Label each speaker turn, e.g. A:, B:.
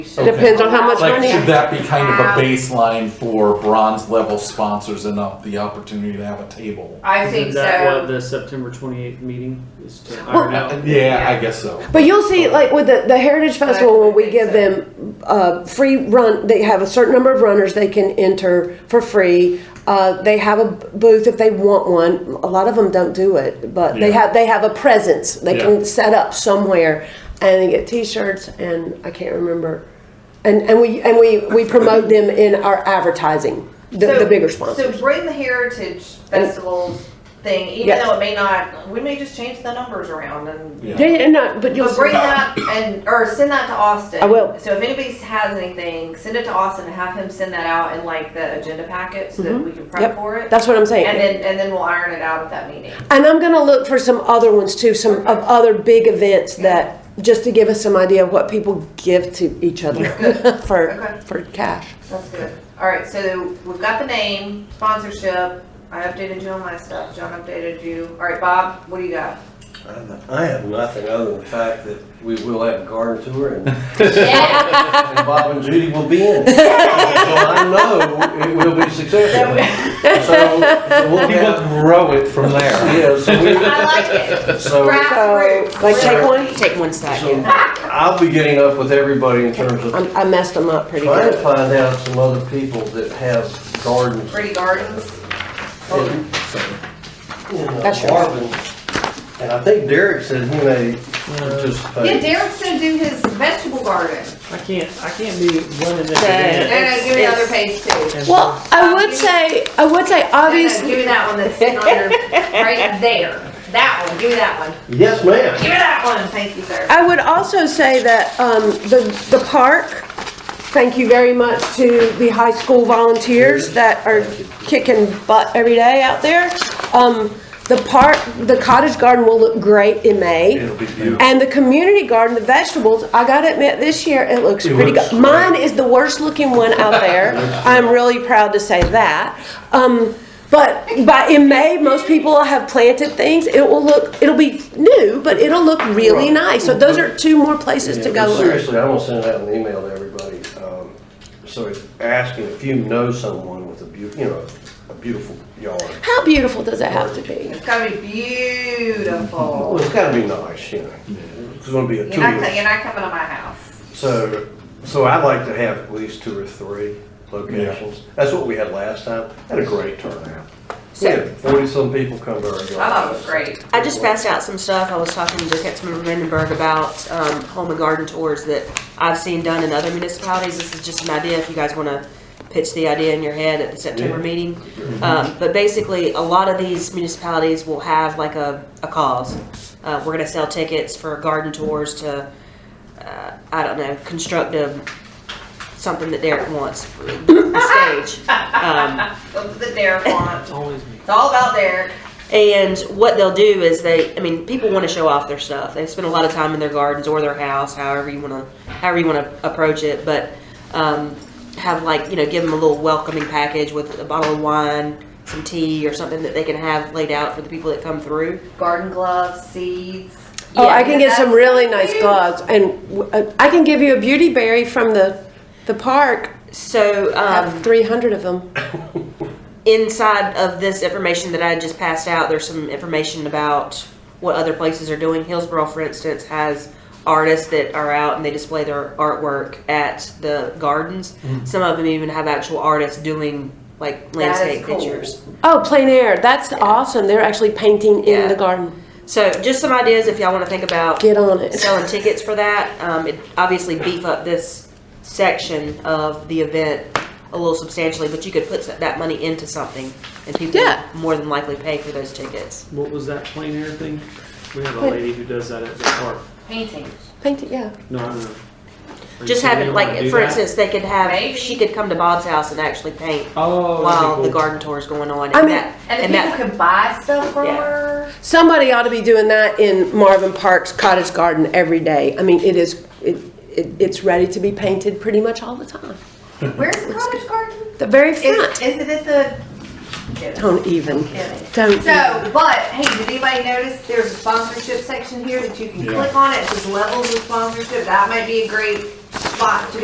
A: Okay.
B: Depends on how much
A: Like,
B: money.
A: should that be kind of
C: Um,
A: a baseline for bronze level sponsors and uh, the opportunity to have a table?
C: I think
D: Isn't that what
C: so.
D: the September 28th meeting is to
B: Well-
D: iron out?
A: Yeah, I guess so.
B: But you'll see, like with the, the Heritage Festival, when we give them uh, free run, they have a certain number of runners they can enter for free. Uh, they have a booth if they want one. A lot of them don't do it, but they
A: Yeah.
B: have they have a presence. They
A: Yeah.
B: can set up somewhere and they get T-shirts and I can't remember. And and we and we we promote them in our advertising. The,
C: So-
B: the bigger sponsors.
C: So bring the heritage festival thing, even
B: Yes.
C: though it may not, we may just change the numbers around and.
A: Yeah.
B: yeah, yeah, no, but you'll
C: But bring that and, or send that to Austin.
B: I will.
C: So if anybody has anything, send it to Austin and have him send that out in like the agenda packet so that we can prep
B: Mm-hmm. Yep.
C: for it.
B: That's what I'm saying.
C: And then, and then we'll iron it out at that meeting.
B: And I'm gonna look for some other ones too, some of other big events that, just to give us some idea of what people give to each other
C: Okay.
B: for, for cash.
C: That's good. All right, so we've got the name, sponsorship. I updated you on my stuff. John updated you. All right, Bob, what do you got?
E: I have nothing other than the fact that we will have a garden tour and
C: Yeah.
E: and Bob and Judy will be in. So I know it will be successful. So so we'll
A: We will
E: have,
A: grow it from there.
E: yeah, so we,
C: I like it.
E: so
B: So,
C: Grassroots.
B: like take
E: Sure.
B: one, take one stack.
E: so I'll be getting up with everybody in terms of
B: I, I messed them up pretty
E: trying to
B: good.
E: find out some other people that have gardens.
C: Pretty gardens.
E: in- in
B: That's your-
E: Marvin. And I think Derek said he may
C: Yeah,
E: participate.
C: Derek's gonna do his vegetable garden.
D: I can't, I can't be running this
C: No,
D: event.
C: no, give me the other page too.
D: and-
B: Well, I would say, I would say
C: No, no,
B: obviously,
C: give me that one that's sitting on your, right there. That one, give me that one.
E: Yes, ma'am.
C: Give me that one. Thank you, sir.
B: I would also say that, um, the, the park, thank you very much to the high school volunteers that are kicking butt every day out there. Um, the park, the cottage garden will look great in May.
E: It'll be beautiful.
B: And the community garden, the vegetables, I gotta admit, this year it looks
E: It
B: pretty
E: looks
B: good. Mine is the worst looking one out there. I'm really proud to say that. Um, but by in May, most people have planted things. It will look, it'll be new, but it'll look really
E: Right.
B: nice. So those are two more places
E: Yeah,
B: to
E: but
B: go. look.
E: Seriously, I'm gonna send out an email to everybody, um, so it's asking if you know someone with a beau, you know, a beautiful yard.
B: How beautiful does it have to be?
C: It's gotta be beautiful.
E: Well, it's gotta be nice, you know, it's gonna be a
C: You're not, co-
E: tour,
C: you're not coming to my house.
E: so, so I'd like to have at least two or three locations. That's what we had last time, had a great turnout. We
F: So-
E: had forty-some people come to our yard.
C: I thought it Oh, was great.
F: I just passed out some stuff. I was talking to Councilmember Vandenberg about um, home and garden tours that I've seen done in other municipalities. This is just an idea if you guys want to pitch the idea in your head at the September
E: Yeah.
F: meeting. Um, but basically, a lot of these municipalities will have like a, a cause. Uh, we're going to sell tickets for garden tours to, uh, I don't know, construct a something that Derek wants, the stage. Um,
C: Look at the Derek font.
D: It's always me.
C: It's all about Derek.
F: And what they'll do is they, I mean, people want to show off their stuff. They spend a lot of time in their gardens or their house, however you want to, however you want to approach it. But um, have like you know, give them a little welcoming package with a bottle of wine, some tea, or something that they can have laid out for the people that come through.
C: Garden gloves, seeds.
B: Oh, I
F: Yeah,
B: can get some
C: that's
B: really nice
C: huge.
B: gloves and w- uh, I can give you a beauty berry from the, the park.
F: So
B: I
F: um,
B: have three hundred of them.
F: inside of this information that I just passed out, there's some information about what other places are doing. Hillsborough, for instance, has artists that are out and they display their artwork at the gardens. Some of them even have actual artists doing like
C: That is
F: landscape
C: cool.
F: pictures.
B: Oh, plein air. That's awesome. They're actually painting in
F: Yeah.
B: the garden.
F: So just some ideas if y'all want to think about
B: Get on it.
F: selling tickets for that. Um, it obviously beef up this section of the event a little substantially, but you could put that money into something and people
B: Yeah.
F: would more than likely pay for those tickets.
D: What was that plein air thing? We have a lady who does that at the park.
C: Paintings.
B: Paint it, yeah.
D: No, I don't know. Are you
F: Just
D: saying
F: having,
D: you wanna
F: like,
D: do
F: for
D: that?
F: instance, they could have,
C: Maybe.
F: she could come to Bob's house and actually paint
D: Oh, that'd be
F: while the
D: cool.
F: garden tour is going on.
B: I
F: And
B: mean-
F: that,
C: And
F: and
C: the people
F: that,
C: can buy stuff from
F: Yeah.
C: her.
B: Somebody ought to be doing that in Marvin Park's cottage garden every day. I mean, it is, it, it, it's ready to be painted pretty much all the time.
C: Where's the cottage garden?
B: The very
C: Is,
B: front.
C: is it at the?
B: Don't even.
C: Kidding.
B: Don't. even.
C: So, but hey, did anybody notice there's a sponsorship section here that you can
A: Yeah.
C: click on it? Just levels of sponsorship. That might be a great spot to